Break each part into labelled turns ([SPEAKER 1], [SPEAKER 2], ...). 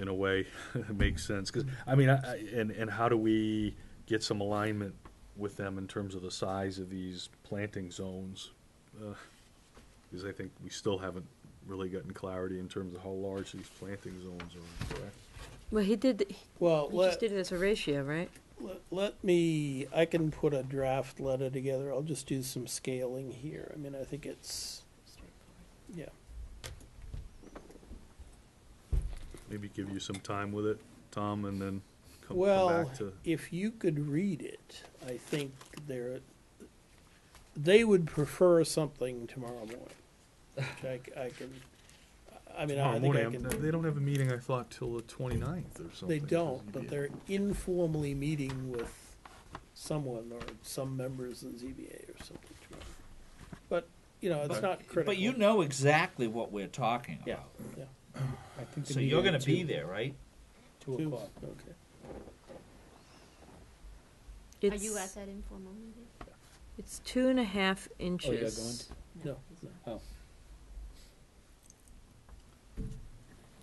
[SPEAKER 1] in a way, it makes sense, because, I mean, I, I- and, and how do we get some alignment with them in terms of the size of these planting zones? Because I think we still haven't really gotten clarity in terms of how large these planting zones are, correct?
[SPEAKER 2] Well, he did,
[SPEAKER 3] Well,
[SPEAKER 2] he just
[SPEAKER 3] let,
[SPEAKER 2] did it as a ratio, right?
[SPEAKER 3] let, let me, I can put a draft letter together. I'll just do some scaling here. I mean, I think it's, yeah.
[SPEAKER 1] Maybe give you some time with it, Tom, and then come come
[SPEAKER 3] Well,
[SPEAKER 1] back to,
[SPEAKER 3] if you could read it, I think there, they would prefer something tomorrow morning. Which I, c- I can, I mean, I
[SPEAKER 1] tomorrow
[SPEAKER 3] think I
[SPEAKER 1] morning.
[SPEAKER 3] can,
[SPEAKER 1] They don't have a meeting, I thought, till the twenty-ninth or something.
[SPEAKER 3] they don't, but they're informally meeting with someone or some members of the ZBA or something tomorrow. But, you know, it's
[SPEAKER 4] But-
[SPEAKER 3] not critical.
[SPEAKER 4] But you know exactly what we're talking
[SPEAKER 3] Yeah.
[SPEAKER 4] about.
[SPEAKER 5] I think
[SPEAKER 4] So you're gonna be there, right?
[SPEAKER 5] Two
[SPEAKER 3] Two,
[SPEAKER 5] o'clock.
[SPEAKER 3] Okay.
[SPEAKER 6] Are you at
[SPEAKER 2] It's,
[SPEAKER 6] that informal meeting?
[SPEAKER 2] it's two and a half
[SPEAKER 5] Oh, you're
[SPEAKER 2] inches.
[SPEAKER 5] going?
[SPEAKER 3] No,
[SPEAKER 6] he's
[SPEAKER 3] no.
[SPEAKER 6] not.
[SPEAKER 5] Oh.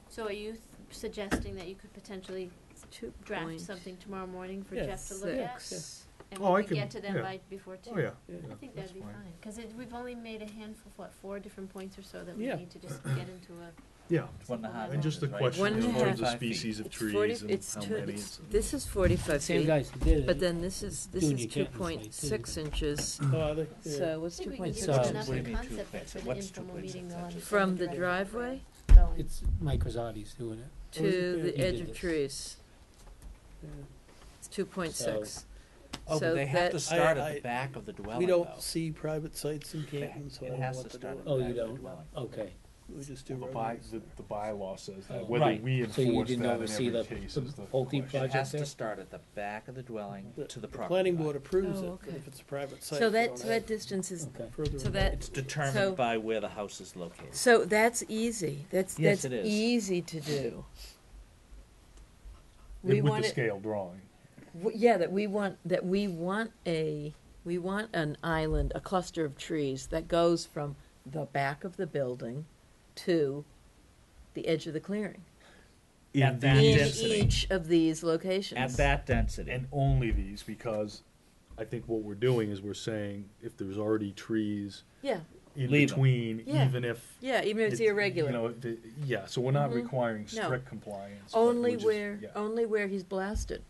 [SPEAKER 6] So are you th- suggesting that you could potentially
[SPEAKER 2] Two
[SPEAKER 6] draft
[SPEAKER 2] point
[SPEAKER 6] something tomorrow morning for
[SPEAKER 3] Yeah.
[SPEAKER 6] Jeff to look at?
[SPEAKER 2] six.
[SPEAKER 6] And
[SPEAKER 1] Oh, I
[SPEAKER 6] we could
[SPEAKER 1] can-
[SPEAKER 6] get to them
[SPEAKER 1] yeah.
[SPEAKER 6] by before two?
[SPEAKER 1] Oh, yeah.
[SPEAKER 3] Yeah.
[SPEAKER 6] I think
[SPEAKER 1] that's
[SPEAKER 6] that'd be
[SPEAKER 1] fine.
[SPEAKER 6] fine, cause it, we've only made a handful, what, four different points or so that we
[SPEAKER 3] Yeah.
[SPEAKER 6] need to just get into a.
[SPEAKER 1] Yeah,
[SPEAKER 4] One and a half
[SPEAKER 1] and just the
[SPEAKER 4] inches, right?
[SPEAKER 1] question
[SPEAKER 2] One
[SPEAKER 1] in
[SPEAKER 2] and a
[SPEAKER 1] terms of
[SPEAKER 4] half.
[SPEAKER 1] species of
[SPEAKER 2] It's forty,
[SPEAKER 1] trees and
[SPEAKER 2] it's
[SPEAKER 1] how
[SPEAKER 2] two,
[SPEAKER 1] many.
[SPEAKER 2] it's,
[SPEAKER 1] and-
[SPEAKER 2] this is forty-five
[SPEAKER 5] Same
[SPEAKER 2] feet,
[SPEAKER 5] guys who did it.
[SPEAKER 2] but then this is, this
[SPEAKER 5] Doing
[SPEAKER 2] is
[SPEAKER 5] your
[SPEAKER 2] two
[SPEAKER 5] chapters like
[SPEAKER 2] point
[SPEAKER 5] this.
[SPEAKER 2] six inches,
[SPEAKER 3] Oh, are they? Yeah.
[SPEAKER 2] so
[SPEAKER 6] I
[SPEAKER 2] what's two uh,
[SPEAKER 6] think we
[SPEAKER 2] point
[SPEAKER 6] can give
[SPEAKER 2] six
[SPEAKER 5] give
[SPEAKER 6] them
[SPEAKER 5] them
[SPEAKER 6] enough
[SPEAKER 2] inches?
[SPEAKER 6] of
[SPEAKER 4] What do you mean two
[SPEAKER 6] a concept,
[SPEAKER 4] points?
[SPEAKER 6] but for the
[SPEAKER 4] What's two
[SPEAKER 6] informal
[SPEAKER 4] points?
[SPEAKER 6] meeting, they'll
[SPEAKER 4] That's
[SPEAKER 6] understand.
[SPEAKER 2] From the
[SPEAKER 6] better.
[SPEAKER 2] driveway
[SPEAKER 6] So-
[SPEAKER 5] It's Mike Rosati's doing it.
[SPEAKER 2] to the
[SPEAKER 5] You
[SPEAKER 2] edge
[SPEAKER 5] did
[SPEAKER 2] of
[SPEAKER 5] this.
[SPEAKER 2] trees,
[SPEAKER 3] Yeah.
[SPEAKER 2] it's two point six.
[SPEAKER 4] Oh,
[SPEAKER 2] So
[SPEAKER 4] but they have
[SPEAKER 2] that-
[SPEAKER 4] to start
[SPEAKER 3] I-
[SPEAKER 4] at
[SPEAKER 3] I-
[SPEAKER 4] the back of the dwelling
[SPEAKER 3] We
[SPEAKER 4] though.
[SPEAKER 3] don't see private sites in
[SPEAKER 4] They-
[SPEAKER 3] Canton, so I
[SPEAKER 4] It
[SPEAKER 3] don't know
[SPEAKER 4] has
[SPEAKER 3] what
[SPEAKER 4] to
[SPEAKER 3] to
[SPEAKER 4] start at
[SPEAKER 3] do. Oh,
[SPEAKER 4] the
[SPEAKER 5] Oh,
[SPEAKER 4] back
[SPEAKER 5] you
[SPEAKER 4] of the
[SPEAKER 5] don't?
[SPEAKER 4] dwelling.
[SPEAKER 5] Okay.
[SPEAKER 3] We just do
[SPEAKER 1] Well, the by,
[SPEAKER 3] roads.
[SPEAKER 1] the, the bylaw says
[SPEAKER 5] Oh.
[SPEAKER 2] Uh,
[SPEAKER 1] that, whether
[SPEAKER 4] Right.
[SPEAKER 1] we
[SPEAKER 5] So you
[SPEAKER 1] enforce
[SPEAKER 5] didn't
[SPEAKER 1] that
[SPEAKER 5] oversee
[SPEAKER 1] in
[SPEAKER 5] the
[SPEAKER 1] every case
[SPEAKER 5] the
[SPEAKER 1] is the
[SPEAKER 5] Pulte
[SPEAKER 1] question.
[SPEAKER 4] It has
[SPEAKER 5] project
[SPEAKER 4] to
[SPEAKER 5] there?
[SPEAKER 4] start at the back of the dwelling
[SPEAKER 3] The-
[SPEAKER 4] to
[SPEAKER 3] the
[SPEAKER 4] the property.
[SPEAKER 3] planning
[SPEAKER 4] line.
[SPEAKER 3] board approves
[SPEAKER 2] Oh,
[SPEAKER 3] it, but
[SPEAKER 2] okay.
[SPEAKER 3] if it's a private site,
[SPEAKER 2] So
[SPEAKER 3] they
[SPEAKER 2] that,
[SPEAKER 3] don't
[SPEAKER 2] so that
[SPEAKER 3] have
[SPEAKER 2] distance is,
[SPEAKER 5] Okay.
[SPEAKER 3] further.
[SPEAKER 2] so that-
[SPEAKER 4] It's
[SPEAKER 2] So-
[SPEAKER 4] determined by where the house is located.
[SPEAKER 2] so that's easy, that's,
[SPEAKER 4] Yes,
[SPEAKER 2] that's
[SPEAKER 4] it is.
[SPEAKER 2] easy to do. We
[SPEAKER 1] With the
[SPEAKER 2] want it,
[SPEAKER 1] scale drawing.
[SPEAKER 2] W- Yeah, that we want, that we want a, we want an island, a cluster of trees that goes from the back of the building to the edge of the clearing.
[SPEAKER 4] At that
[SPEAKER 2] In
[SPEAKER 4] density.
[SPEAKER 2] each of these locations.
[SPEAKER 4] At that density.
[SPEAKER 1] And only these, because I think what we're doing is we're saying if there's already trees
[SPEAKER 2] Yeah,
[SPEAKER 1] in
[SPEAKER 4] Leave 'em.
[SPEAKER 1] between,
[SPEAKER 2] Yeah.
[SPEAKER 1] even if.
[SPEAKER 2] yeah, even if it's irregular.
[SPEAKER 1] You know, the, yeah, so we're not
[SPEAKER 2] Mhm.
[SPEAKER 1] requiring
[SPEAKER 2] No.
[SPEAKER 1] strict compliance. but
[SPEAKER 2] only
[SPEAKER 1] we're just-
[SPEAKER 2] where,
[SPEAKER 1] yeah,
[SPEAKER 2] only where he's blasted.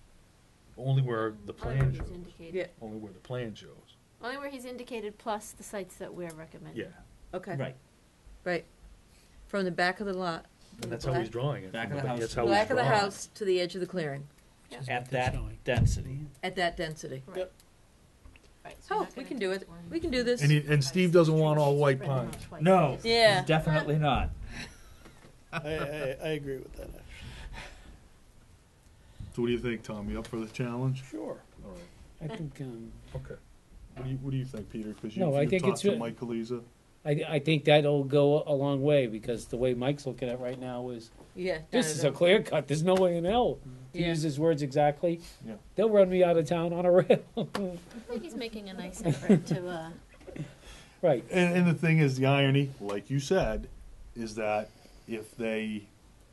[SPEAKER 1] Only where the
[SPEAKER 6] Only where
[SPEAKER 1] plan
[SPEAKER 6] he's
[SPEAKER 1] shows,
[SPEAKER 6] indicated.
[SPEAKER 2] Yeah,
[SPEAKER 1] only where the plan shows,
[SPEAKER 6] Only where he's indicated plus the sites that we're recommending.
[SPEAKER 1] yeah,
[SPEAKER 2] okay.
[SPEAKER 4] Right.
[SPEAKER 2] Right. From the back of the lot,
[SPEAKER 1] and that's how he's drawing it.
[SPEAKER 4] Back of the
[SPEAKER 1] That's
[SPEAKER 4] house.
[SPEAKER 1] how he's
[SPEAKER 2] back of the
[SPEAKER 1] drawing it.
[SPEAKER 2] house to the edge of the clearing,
[SPEAKER 5] Which is what
[SPEAKER 4] At
[SPEAKER 5] they're
[SPEAKER 4] that
[SPEAKER 5] showing.
[SPEAKER 4] density.
[SPEAKER 2] at that density.
[SPEAKER 6] Right.
[SPEAKER 3] Yep.
[SPEAKER 6] Right, so you're
[SPEAKER 2] Oh,
[SPEAKER 6] not
[SPEAKER 2] we
[SPEAKER 6] gonna
[SPEAKER 2] can do
[SPEAKER 6] take
[SPEAKER 2] it,
[SPEAKER 6] one.
[SPEAKER 2] we can do this.
[SPEAKER 1] And, he, and Steve doesn't want all white
[SPEAKER 6] Spread them
[SPEAKER 1] pines.
[SPEAKER 6] out twice.
[SPEAKER 4] No.
[SPEAKER 2] Yeah.
[SPEAKER 4] Definitely not.
[SPEAKER 3] I, I, I agree with that, actually.
[SPEAKER 1] So what do you think, Tom? You up for the challenge?
[SPEAKER 3] Sure.
[SPEAKER 1] All right.
[SPEAKER 5] I think, um,
[SPEAKER 1] Okay. What do you, what do you think, Peter? Because you,
[SPEAKER 5] No, I
[SPEAKER 1] you
[SPEAKER 5] think
[SPEAKER 1] talked
[SPEAKER 5] it's
[SPEAKER 1] to
[SPEAKER 5] a-
[SPEAKER 1] Mike Kaliza.
[SPEAKER 5] I, I think that'll go a long way because the way Mike's looking at it right now is,
[SPEAKER 2] Yeah. no,
[SPEAKER 5] this
[SPEAKER 2] no,
[SPEAKER 5] is
[SPEAKER 2] no.
[SPEAKER 5] a clear cut. There's no way in hell. To
[SPEAKER 2] Yeah.
[SPEAKER 5] use his words exactly,
[SPEAKER 1] Yeah.
[SPEAKER 5] they'll run me out of town on a rail.
[SPEAKER 6] I think he's making a nice effort to, uh,
[SPEAKER 5] Right.
[SPEAKER 1] And, and the thing is, the irony, like you said, is that if they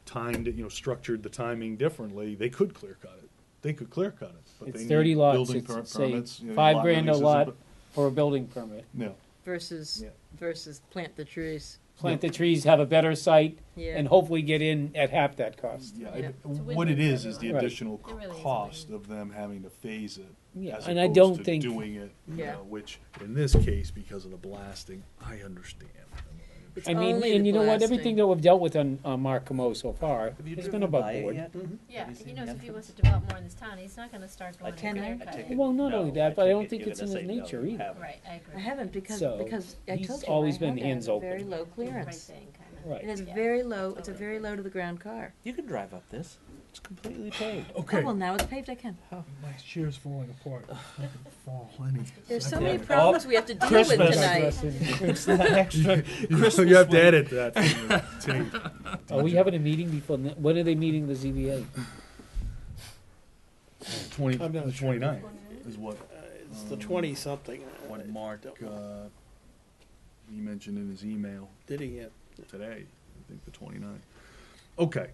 [SPEAKER 1] timed it, you know, structured the timing differently, they could clear cut it. They could clear cut it. But
[SPEAKER 5] It's
[SPEAKER 1] they
[SPEAKER 5] 30
[SPEAKER 1] need
[SPEAKER 5] lots.
[SPEAKER 1] Building
[SPEAKER 5] It's,
[SPEAKER 1] per-
[SPEAKER 5] say,
[SPEAKER 1] permits, you know,
[SPEAKER 5] five
[SPEAKER 1] lot
[SPEAKER 5] grand a
[SPEAKER 1] releases and
[SPEAKER 5] lot.
[SPEAKER 1] bu-
[SPEAKER 5] For a building permit.
[SPEAKER 1] No.
[SPEAKER 2] Versus,
[SPEAKER 1] Yeah.
[SPEAKER 2] versus plant the trees,
[SPEAKER 5] Plant the trees, have a better site,
[SPEAKER 2] yeah.
[SPEAKER 5] and hopefully get in at half that cost.
[SPEAKER 1] Yeah,
[SPEAKER 2] Yeah.
[SPEAKER 1] it-
[SPEAKER 2] It's
[SPEAKER 6] a
[SPEAKER 1] what
[SPEAKER 6] win-win
[SPEAKER 1] it
[SPEAKER 6] for
[SPEAKER 1] is is the
[SPEAKER 5] everyone. Right.
[SPEAKER 1] additional
[SPEAKER 6] It really is a
[SPEAKER 1] cost of them having to phase it.
[SPEAKER 5] Yeah,
[SPEAKER 1] as
[SPEAKER 5] and I
[SPEAKER 1] opposed
[SPEAKER 5] don't
[SPEAKER 1] to
[SPEAKER 5] think
[SPEAKER 1] doing it, you
[SPEAKER 2] Yeah.
[SPEAKER 1] know, which in this case, because of the blasting, I understand.
[SPEAKER 2] It's
[SPEAKER 5] I mean,
[SPEAKER 2] only
[SPEAKER 5] and
[SPEAKER 2] the
[SPEAKER 5] you know what?
[SPEAKER 2] blasting.
[SPEAKER 5] Everything that we've dealt with on, on Markhamo so far,
[SPEAKER 4] Have you
[SPEAKER 5] it's
[SPEAKER 4] driven
[SPEAKER 5] been above
[SPEAKER 4] by it
[SPEAKER 5] board.
[SPEAKER 4] yet?
[SPEAKER 6] yeah,
[SPEAKER 4] you
[SPEAKER 6] he
[SPEAKER 4] seen
[SPEAKER 6] knows
[SPEAKER 4] the
[SPEAKER 6] if he
[SPEAKER 4] entrance?
[SPEAKER 6] wants to develop more in this town, he's not gonna start
[SPEAKER 4] I
[SPEAKER 6] going
[SPEAKER 4] take
[SPEAKER 6] and clear
[SPEAKER 2] it-
[SPEAKER 4] I
[SPEAKER 6] cut
[SPEAKER 4] take
[SPEAKER 6] it.
[SPEAKER 4] it.
[SPEAKER 5] Well, not
[SPEAKER 4] No,
[SPEAKER 5] only that,
[SPEAKER 4] I
[SPEAKER 5] but I
[SPEAKER 4] take
[SPEAKER 5] don't
[SPEAKER 4] it
[SPEAKER 5] think
[SPEAKER 4] you're
[SPEAKER 5] it's in
[SPEAKER 4] gonna
[SPEAKER 5] his
[SPEAKER 4] say no,
[SPEAKER 5] nature
[SPEAKER 4] you
[SPEAKER 5] either.
[SPEAKER 4] haven't.
[SPEAKER 6] Right, I
[SPEAKER 2] I
[SPEAKER 6] agree.
[SPEAKER 2] haven't because,
[SPEAKER 5] So,
[SPEAKER 2] because I
[SPEAKER 5] he's
[SPEAKER 2] told you, I
[SPEAKER 5] always
[SPEAKER 2] had
[SPEAKER 5] been
[SPEAKER 2] it as
[SPEAKER 5] hands
[SPEAKER 2] a
[SPEAKER 5] open.
[SPEAKER 2] very low
[SPEAKER 6] Right
[SPEAKER 2] clearance.
[SPEAKER 6] thing, kinda.
[SPEAKER 5] Right.
[SPEAKER 2] It is
[SPEAKER 6] Yeah.
[SPEAKER 2] very low, it's a very low to the ground car.
[SPEAKER 4] You can drive up this. It's completely paved.
[SPEAKER 2] Oh, well, now it's paved, I can.
[SPEAKER 1] My chair's falling apart. Fall any.
[SPEAKER 2] There's so many
[SPEAKER 4] Oh,
[SPEAKER 2] problems we have to deal with
[SPEAKER 4] Christmas.
[SPEAKER 2] tonight.
[SPEAKER 4] It's that extra.
[SPEAKER 1] You have to edit that. tape.
[SPEAKER 5] Are Oh, we having a meeting before, ne- when are they meeting the ZBA?
[SPEAKER 1] Twenty,
[SPEAKER 3] I'm not sure.
[SPEAKER 1] twenty-nine is what,
[SPEAKER 3] Uh, It's the
[SPEAKER 1] Um,
[SPEAKER 3] twenty-something.
[SPEAKER 1] what Mark, uh, he mentioned in his email
[SPEAKER 3] Did he get?
[SPEAKER 1] today, I think the twenty-nine. Okay,